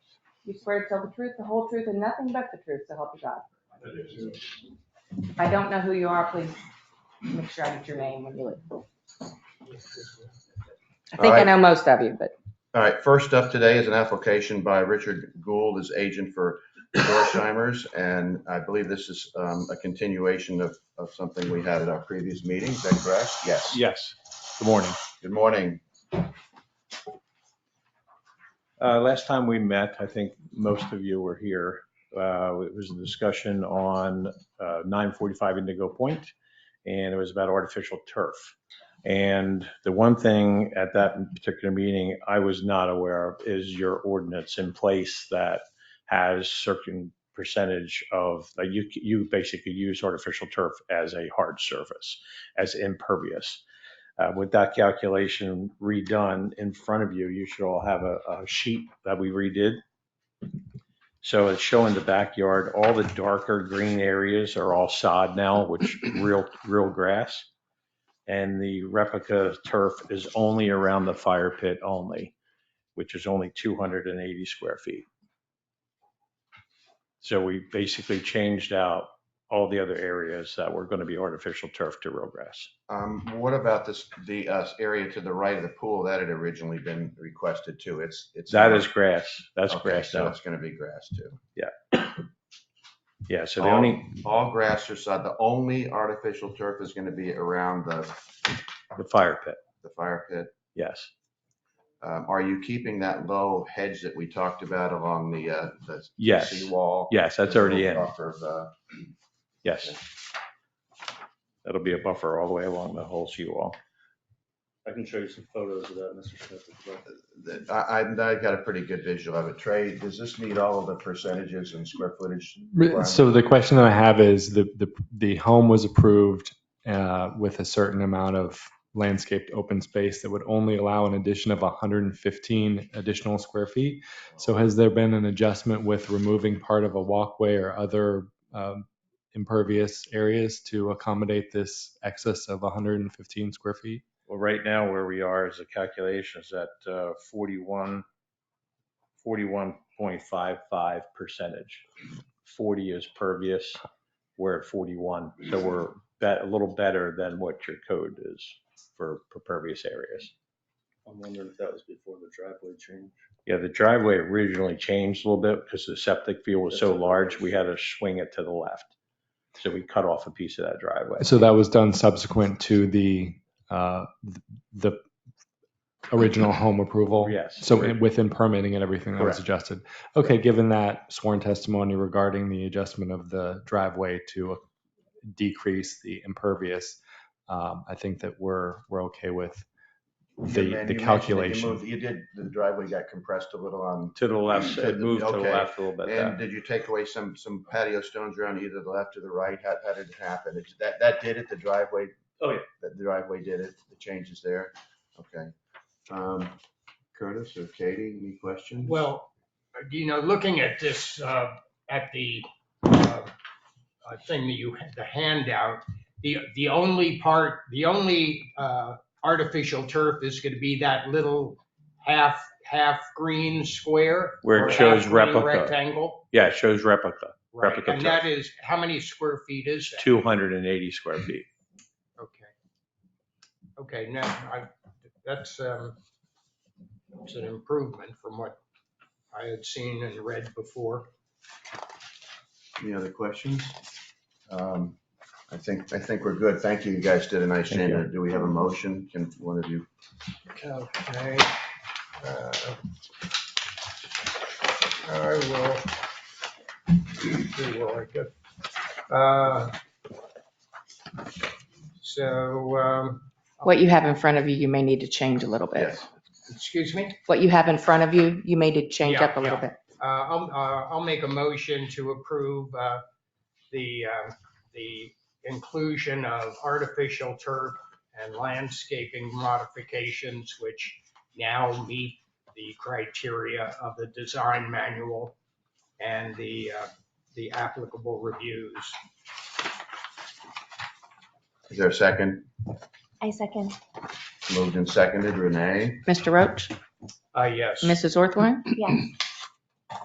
You swear to tell the truth, the whole truth, and nothing but the truth, so help you God. I do too. If I don't know who you are, please make sure I get your name when you leave. I think I Alright. know most of you, but All right, first up today is an application by Richard Gould, his agent for Dorsheimer's. And I believe this is um, a continuation of, of something we had at our previous meeting. Is that correct? Yes. Yes, good morning. Good morning. Uh, Last time we met, I think most of you were here. uh, It was a discussion on uh, 945 Indigo Point, and it was about artificial turf. And the one thing at that particular meeting I was not aware of is your ordinance in place that has certain percentage of, uh, you, you basically use artificial turf as a hard surface, as impervious. Uh, With that calculation redone in front of you, you should all have a, a sheet that we redid. So it's showing the backyard, all the darker green areas are all sod now, which real, real grass. And the replica turf is only around the fire pit only, which is only 280 square feet. So we basically changed out all the other areas that were going to be artificial turf to real grass. Um, What about this, the uh, area to the right of the pool that had originally been requested too? It's, it's. That is grass. That's Okay, grass So now. it's going to be grass too. Yeah, so the only, All grass or sod, the only artificial turf is going to be around the, the fire pit, the fire pit. yes. Um, Are you keeping that low hedge that we talked about along the, uh, the Yes, seawall? yes, that's already in, Buffer of, uh, yes. That'll be a buffer all the way along the whole seawall. I can show you some photos of that, Mr. Smith. if you'd like. the- I, I- I've got a pretty good visual of it. Trey, does this meet all of the percentages and square footage? requirements? So the question that I have is the, the, the home was approved uh, with a certain amount of landscaped open space that would only allow an addition of 115 additional square feet. So has there been an adjustment with removing part of a walkway or other um, impervious areas to accommodate this excess of 115 square feet? Well, right now where we are is the calculation is at uh, 41, 41.55 percentage. 40 is pervious, we're at 41, so we're bet- a little better than what your code is for for pervious areas. I'm wondering if that was before the driveway change. Yeah, the driveway originally changed a little bit because the septic field was so large, we had to swing it to the left. So we cut off a piece of that driveway. So that was done subsequent to the, uh, th- the original home approval? Yes. So in- within permitting and everything that was Correct. adjusted? Okay, given that sworn testimony regarding the adjustment of the driveway to decrease the impervious, um, I think that we're, we're okay with You the, men- the you mentioned that you moved- calculation. You did, the driveway got compressed a little on, To the left, To the- it moved to the okay. left a little bit and there. did you take away some, some patio stones around either the left or the right? How, how did it happen? It's- That, that did it, the driveway? Oh, yeah. The driveway did it, the changes there? Okay. Um, Curtis or Katie, any questions? Well, you know, looking at this, uh, at the uh, uh, thing that you, the handout, the, the only part, the only uh, artificial turf is going to be that little half, half green square. Where it or half shows green replica. Rectangle. Yeah, it shows replica, Right. Replica And turf. that is, how many square feet is that? 280 square feet. Okay. Okay, now, I, that's, um, it's an improvement from what I had seen and read before. Any other questions? Um, I think, I think we're good. Thank you. You guys did a nice Thank you. job. Do we have a motion? Can one of you? Okay. uh, I will. see where I get. Uh, So, um, what you have in front of you, you may need to change a little bit. Yes. excuse me, What you have in front of you, you may need to change Yeah, up a little yeah. bit. Uh, I'll, uh, I'll make a motion to approve uh, the, uh, the inclusion of artificial turf and landscaping modifications, which now meet the criteria of the design manual and the, uh, the applicable reviews. Is there a second? I second. Moved and seconded. Renee? Mr. Roach, Uh, yes. Mrs. Orthwine, Yes.